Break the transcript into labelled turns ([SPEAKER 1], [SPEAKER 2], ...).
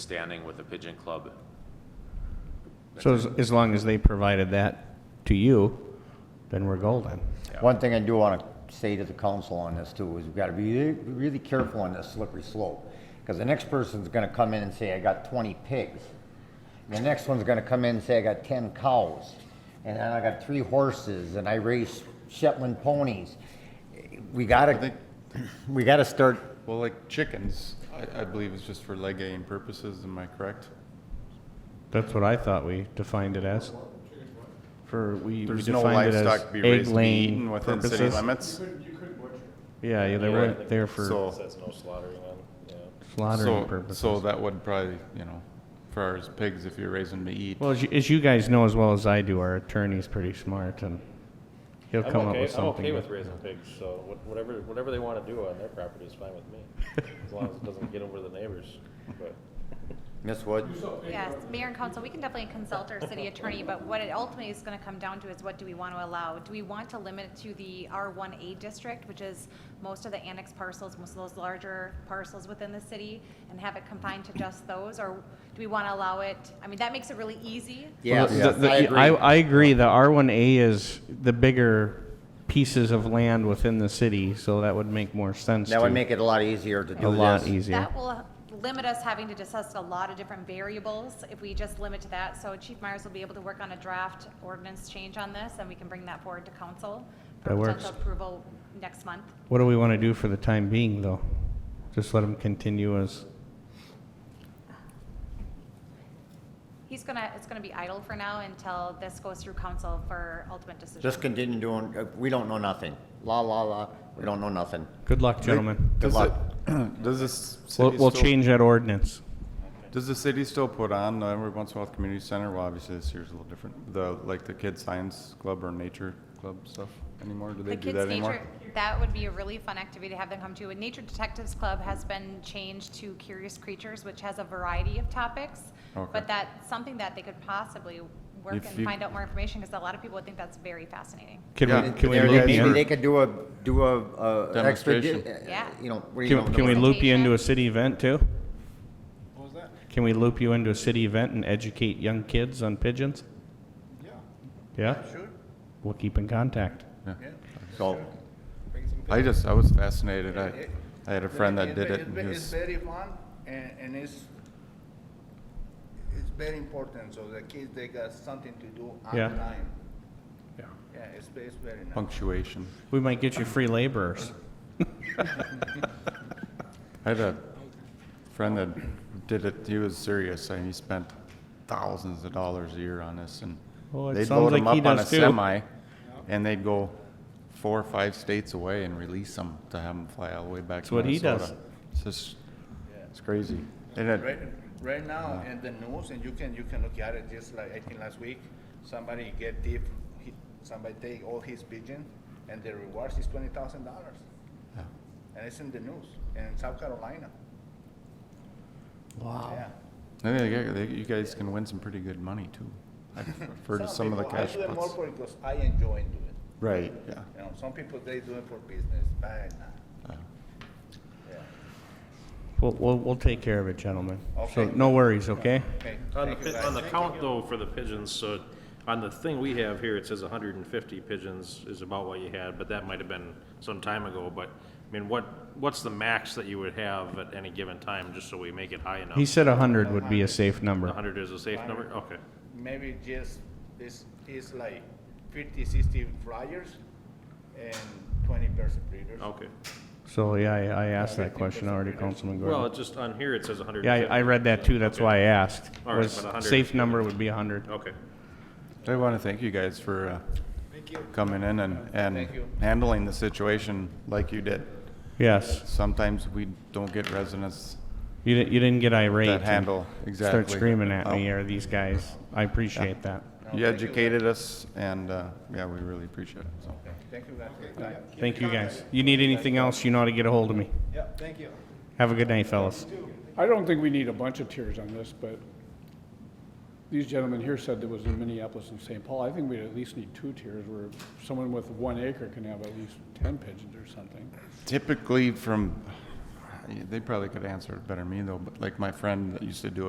[SPEAKER 1] standing with the Pigeon Club.
[SPEAKER 2] So as, as long as they provided that to you, then we're golden.
[SPEAKER 3] One thing I do want to say to the council on this too, is we've got to be really- really careful on this slippery slope. Because the next person's going to come in and say, I got 20 pigs. The next one's going to come in and say, I got 10 cows. And then I got three horses and I race Shetland ponies. We got to,
[SPEAKER 4] think-
[SPEAKER 3] we got to start,
[SPEAKER 4] Well, like chickens, I, I believe is just for legating purposes, am I correct?
[SPEAKER 2] That's what I thought we defined it as. For, we we
[SPEAKER 4] There's no
[SPEAKER 2] defined it as
[SPEAKER 4] livestock to be
[SPEAKER 2] egg
[SPEAKER 4] raised to be eaten
[SPEAKER 2] laying
[SPEAKER 4] within city
[SPEAKER 2] purposes.
[SPEAKER 4] limits.
[SPEAKER 2] Yeah, yeah, they weren't there for
[SPEAKER 4] So,
[SPEAKER 2] slaughtering
[SPEAKER 4] so, so
[SPEAKER 2] purposes.
[SPEAKER 4] that would probably, you know, for ours pigs, if you're raising to eat.
[SPEAKER 2] Well, as you, as you guys know as well as I do, our attorney's pretty smart and he'll
[SPEAKER 5] I'm
[SPEAKER 2] come up
[SPEAKER 5] okay-
[SPEAKER 2] with
[SPEAKER 5] I'm okay
[SPEAKER 2] something.
[SPEAKER 5] with raising pigs, so wha- whatever, whatever they want to do on their property is fine with me, as long as it doesn't get over the neighbors, but.
[SPEAKER 3] Miss Wood,
[SPEAKER 6] Yes, mayor and council, we can definitely consult our city attorney, but what it ultimately is gonna come down to is what do we want to allow? Do we want to limit it to the R one A district, which is most of the annex parcels, most of those larger parcels within the city, and have it confined to just those, or do we want to allow it, I mean, that makes it really easy.
[SPEAKER 2] Well,
[SPEAKER 3] yes,
[SPEAKER 2] the- the-
[SPEAKER 3] I agree.
[SPEAKER 2] I, I agree, the R1A is the bigger pieces of land within the city, so that would make more sense
[SPEAKER 3] That would
[SPEAKER 2] to-
[SPEAKER 3] make it a lot easier to do this.
[SPEAKER 2] A lot easier.
[SPEAKER 6] That will limit us having to discuss a lot of different variables if we just limit to that. So Chief Myers will be able to work on a draft ordinance change on this, and we can bring that forward to council for
[SPEAKER 2] That works.
[SPEAKER 6] potential approval next month.
[SPEAKER 2] What do we want to do for the time being, though? Just let them continue as,
[SPEAKER 6] He's gonna, it's gonna be idle for now until this goes through council for ultimate decision.
[SPEAKER 3] Just continue doing, uh, we don't know nothing. La, la, la, we don't know nothing.
[SPEAKER 2] good luck, gentlemen.
[SPEAKER 3] Good
[SPEAKER 4] Does
[SPEAKER 3] luck.
[SPEAKER 4] it- Does this
[SPEAKER 2] We'll,
[SPEAKER 4] city
[SPEAKER 2] we'll
[SPEAKER 4] still,
[SPEAKER 2] change that ordinance.
[SPEAKER 4] does the city still put on uh, every once in a while at the community center? Well, obviously this year's a little different. The, like the kid science club or nature club stuff anymore? Do they
[SPEAKER 6] The
[SPEAKER 4] do
[SPEAKER 6] kids'
[SPEAKER 4] that anymore?
[SPEAKER 6] nature, that would be a really fun activity to have them come to. And Nature Detectives Club has been changed to Curious Creatures, which has a variety of topics.
[SPEAKER 4] Okay.
[SPEAKER 6] But that's something that they could possibly work
[SPEAKER 4] If
[SPEAKER 6] and
[SPEAKER 4] you-
[SPEAKER 6] find out more information, because a lot of people would think that's very fascinating.
[SPEAKER 2] Can
[SPEAKER 4] Yeah.
[SPEAKER 2] we, can we
[SPEAKER 3] There-
[SPEAKER 2] loop
[SPEAKER 3] Maybe
[SPEAKER 2] you
[SPEAKER 3] they
[SPEAKER 2] in?
[SPEAKER 3] could do a, do a, a. an extra di- uh,
[SPEAKER 4] Demonstration.
[SPEAKER 6] Yeah.
[SPEAKER 3] You know, what do you know?
[SPEAKER 2] Can, can we loop you into a city event, too?
[SPEAKER 4] What was that?
[SPEAKER 2] Can we loop you into a city event and educate young kids on pigeons? Yeah? Sure. We'll keep in contact.
[SPEAKER 3] So,
[SPEAKER 4] I just, I was fascinated. I, I had a friend that
[SPEAKER 7] It's
[SPEAKER 4] did
[SPEAKER 7] ve-
[SPEAKER 4] it
[SPEAKER 7] it's
[SPEAKER 4] and
[SPEAKER 7] ve-
[SPEAKER 4] he
[SPEAKER 7] It's
[SPEAKER 4] was,
[SPEAKER 7] very fun and, and it's, it's very important, so the kids, they got something to do on
[SPEAKER 2] Yeah.
[SPEAKER 7] time. Yeah, it's, ve- it's very nice.
[SPEAKER 4] punctuation.
[SPEAKER 2] We might get you free laborers.
[SPEAKER 4] I had a friend that did it. He was serious, and he spent thousands of dollars a year on this. And
[SPEAKER 2] Well, it
[SPEAKER 4] they'd
[SPEAKER 2] sounds
[SPEAKER 4] load them
[SPEAKER 2] like he
[SPEAKER 4] up on a
[SPEAKER 2] does too.
[SPEAKER 4] semi, and they'd go four or five states away and release them to have them fly all the way back
[SPEAKER 2] That's
[SPEAKER 4] to
[SPEAKER 2] what he
[SPEAKER 4] Minnesota.
[SPEAKER 2] does.
[SPEAKER 4] It's just, it's crazy. And it-
[SPEAKER 7] Right, right now, in the news, and you can, you can look at it, just like, I think last week, somebody get deep, he- somebody take all his pigeon, and the rewards is twenty thousand dollars.
[SPEAKER 4] Yeah.
[SPEAKER 7] And it's in the news, in South Carolina. Wow.
[SPEAKER 4] I think they- they- you guys can win some pretty good money too. I've heard of some of the cash
[SPEAKER 7] I do it more
[SPEAKER 4] pots.
[SPEAKER 7] for, because I enjoy doing it.
[SPEAKER 4] Right. Yeah.
[SPEAKER 7] You know, some people, they do it for business, but I not.
[SPEAKER 4] yeah.
[SPEAKER 2] We'll, we'll, we'll take care of it, gentlemen. So,
[SPEAKER 7] Okay.
[SPEAKER 2] no worries, okay?
[SPEAKER 7] Okay,
[SPEAKER 5] On the,
[SPEAKER 7] thank
[SPEAKER 5] pi-
[SPEAKER 7] you, guys.
[SPEAKER 5] on the count though for the pigeons, so on the thing we have here, it says hundred and fifty pigeons is about what you had, but that might have been some time ago, but, I mean, what, what's the max that you would have at any given time, just so we make it high
[SPEAKER 2] He
[SPEAKER 5] enough?
[SPEAKER 2] said 100 would be a safe number.
[SPEAKER 5] hundred is a safe number, okay.
[SPEAKER 7] Maybe just, this is like 50, 60 flyers and twenty person breeders.
[SPEAKER 5] Okay.
[SPEAKER 2] So, yeah, I, I asked that question already, Councilman Gordon.
[SPEAKER 5] Well, it just, on here, it says hundred.
[SPEAKER 2] Yeah, I, I read that too, that's why I asked.
[SPEAKER 5] All right,
[SPEAKER 2] Was
[SPEAKER 5] but 100
[SPEAKER 2] safe number would be hundred.
[SPEAKER 5] Okay.
[SPEAKER 4] I want to thank you guys for uh, coming in and, and
[SPEAKER 7] Thank you.
[SPEAKER 4] handling the situation like you did.
[SPEAKER 2] Yes,
[SPEAKER 4] Sometimes we don't get residents
[SPEAKER 2] you didn't, you didn't get irate.
[SPEAKER 4] that
[SPEAKER 2] and
[SPEAKER 4] handle, exactly.
[SPEAKER 2] Start screaming at me
[SPEAKER 4] Oh.
[SPEAKER 2] or these guys. I appreciate that.
[SPEAKER 4] You educated us, and, uh, yeah, we really appreciate it, so.
[SPEAKER 7] Thank you, guys.
[SPEAKER 2] Thank you guys. You need anything else, you know how to get a hold of me. Yeah, thank you. Have a good night, fellas.
[SPEAKER 8] I don't think we need a bunch of tiers on this, but these gentlemen here said there was in Minneapolis and St. Paul. I think we'd at least need two tiers where someone with one acre can have at least ten pigeons or something.
[SPEAKER 4] Typically from, they probably could answer it better than me, though, but like my friend that used to do it.